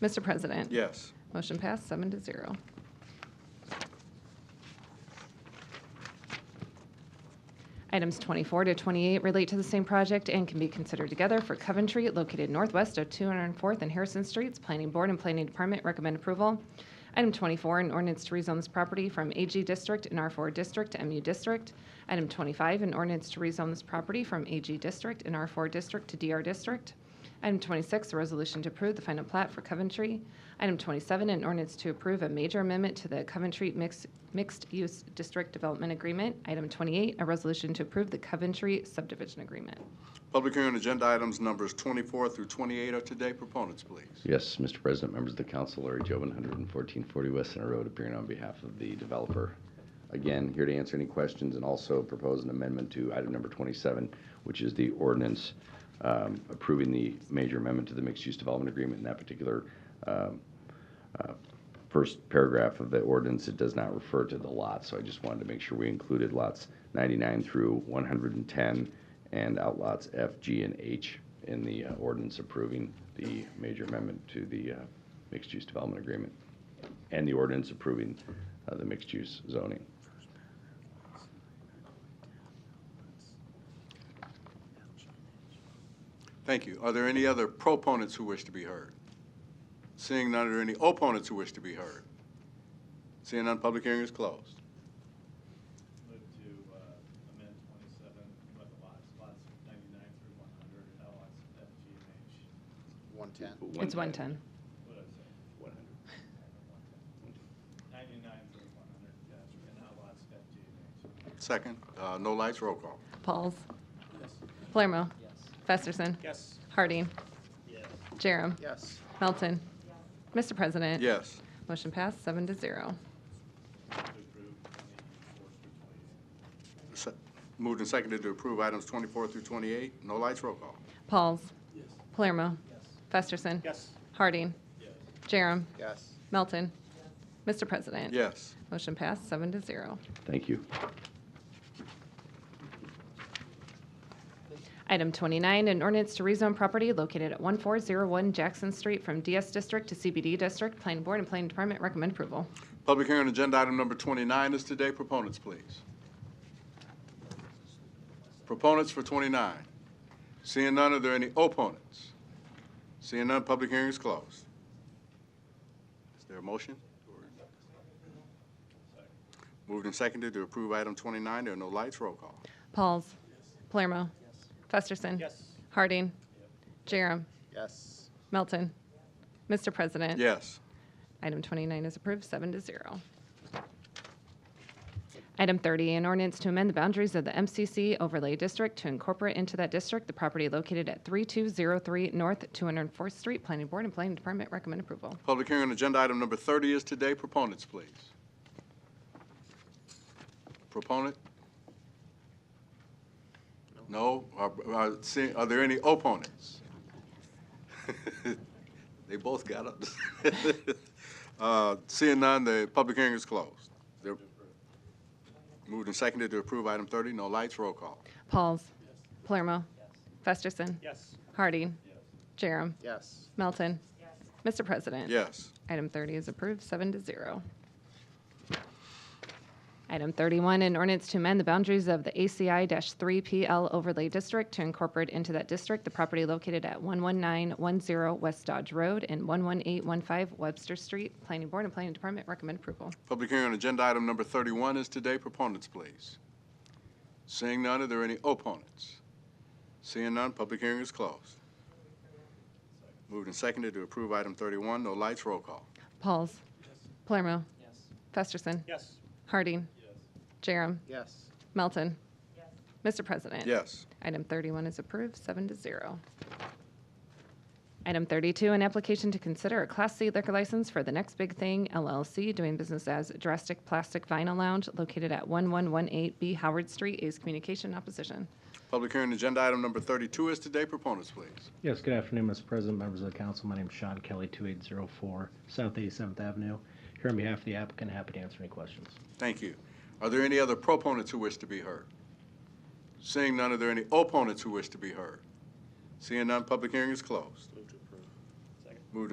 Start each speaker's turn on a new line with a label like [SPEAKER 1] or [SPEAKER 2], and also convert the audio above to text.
[SPEAKER 1] Mr. President.
[SPEAKER 2] Yes.
[SPEAKER 1] Motion passed, seven to zero. Items 24 to 28 relate to the same project and can be considered together for Coventry, located northwest of 204th and Harrison Streets. Planning Board and Planning Department recommend approval. Item 24, an ordinance to rezone this property from AG District and R4 District to MU District. Item 25, an ordinance to rezone this property from AG District and R4 District to DR District. Item 26, a resolution to approve the final plat for Coventry. Item 27, an ordinance to approve a major amendment to the Coventry Mix- Mixed-Use District Development Agreement. Item 28, a resolution to approve the Coventry subdivision agreement.
[SPEAKER 2] Public hearing on agenda items numbers 24 through 28 are today. Proponents, please.
[SPEAKER 3] Yes, Mr. President, members of the council, Larry Jobin, 11440 West Center Road, appearing on behalf of the developer. Again, here to answer any questions and also propose an amendment to item number 27, which is the ordinance um, approving the major amendment to the mixed-use development agreement. In that particular um, uh, first paragraph of the ordinance, it does not refer to the lot, so I just wanted to make sure we included lots 99 through 110 and outlots F, G, and H in the uh, ordinance approving the major amendment to the uh, mixed-use development agreement and the ordinance approving uh, the mixed-use zoning.
[SPEAKER 2] Thank you. Are there any other proponents who wish to be heard? Seeing none, are there any opponents who wish to be heard? Seeing none, public hearing is closed.
[SPEAKER 4] Move to uh, amend 27 with the lots, lots 99 through 100, and lots F, G, and H.
[SPEAKER 5] 110.
[SPEAKER 1] It's 110.
[SPEAKER 4] What did I say? 99 through 100, yes, and lots F, G, and H.
[SPEAKER 2] Second, uh, no lights, roll call.
[SPEAKER 1] Pauls.
[SPEAKER 4] Yes.
[SPEAKER 1] Palermo.
[SPEAKER 5] Yes.
[SPEAKER 1] Festerson.
[SPEAKER 4] Yes.
[SPEAKER 1] Harding.
[SPEAKER 4] Yes.
[SPEAKER 1] Jerem.
[SPEAKER 5] Yes.
[SPEAKER 1] Melton. Mr. President.
[SPEAKER 2] Yes.
[SPEAKER 1] Motion passed, seven to zero.
[SPEAKER 4] To approve 24 through 28.
[SPEAKER 2] Se- Moved and seconded to approve items 24 through 28. No lights, roll call.
[SPEAKER 1] Pauls.
[SPEAKER 4] Yes.
[SPEAKER 1] Palermo.
[SPEAKER 4] Yes.
[SPEAKER 1] Festerson.
[SPEAKER 4] Yes.
[SPEAKER 1] Harding.
[SPEAKER 4] Yes.
[SPEAKER 1] Jerem.
[SPEAKER 5] Yes.
[SPEAKER 1] Melton. Mr. President.
[SPEAKER 2] Yes.
[SPEAKER 1] Motion passed, seven to zero.
[SPEAKER 3] Thank you.
[SPEAKER 1] Item 29, an ordinance to rezone property located at 1401 Jackson Street from DS District to CBD District. Planning Board and Planning Department recommend approval.
[SPEAKER 2] Public hearing on agenda item number 29 is today. Proponents, please. Proponents for 29. Seeing none, are there any opponents? Seeing none, public hearing is closed. Is there a motion? Moved and seconded to approve item 29. There are no lights. Roll call.
[SPEAKER 1] Pauls. Palermo. Festerson.
[SPEAKER 4] Yes.
[SPEAKER 1] Harding. Jerem.
[SPEAKER 5] Yes.
[SPEAKER 1] Melton. Mr. President.
[SPEAKER 2] Yes.
[SPEAKER 1] Item 29 is approved, seven to zero. Item 30, an ordinance to amend the boundaries of the MCC overlay district to incorporate into that district the property located at 3203 North 204th Street. Planning Board and Planning Department recommend approval.
[SPEAKER 2] Public hearing on agenda item number 30 is today. Proponents, please. Proponent? No? Are- Are see- are there any opponents? They both got up. Uh, Seeing none, the public hearing is closed. They're- Moved and seconded to approve item 30. No lights, roll call.
[SPEAKER 1] Pauls. Palermo. Festerson.
[SPEAKER 4] Yes.
[SPEAKER 1] Harding. Jerem.
[SPEAKER 5] Yes.
[SPEAKER 1] Melton. Mr. President.
[SPEAKER 2] Yes.
[SPEAKER 1] Item 30 is approved, seven to zero. Item 31, an ordinance to amend the boundaries of the ACI-3PL overlay district to incorporate into that district the property located at 11910 West Dodge Road and 11815 Webster Street. Planning Board and Planning Department recommend approval.
[SPEAKER 2] Public hearing on agenda item number 31 is today. Proponents, please. Seeing none, are there any opponents? Seeing none, public hearing is closed. Moved and seconded to approve item 31. No lights, roll call.
[SPEAKER 1] Pauls. Palermo. Festerson.
[SPEAKER 4] Yes.
[SPEAKER 1] Harding.
[SPEAKER 4] Yes.
[SPEAKER 1] Jerem.
[SPEAKER 5] Yes.
[SPEAKER 1] Melton. Mr. President.
[SPEAKER 2] Yes.
[SPEAKER 1] Item 31 is approved, seven to zero. Item 32, an application to consider a Class C liquor license for The Next Big Thing LLC, doing business as Drastic Plastic Vinyl Lounge, located at 1118 B Howard Street, A's Communication Opposition.
[SPEAKER 2] Public hearing on agenda item number 32 is today. Proponents, please.
[SPEAKER 6] Yes, good afternoon, Mr. President, members of the council. My name is Sean Kelly, 2804 South 87th Avenue. Here on behalf of the applicant, happy to answer any questions.
[SPEAKER 2] Thank you. Are there any other proponents who wish to be heard? Seeing none, are there any opponents who wish to be heard? Seeing none, public hearing is closed.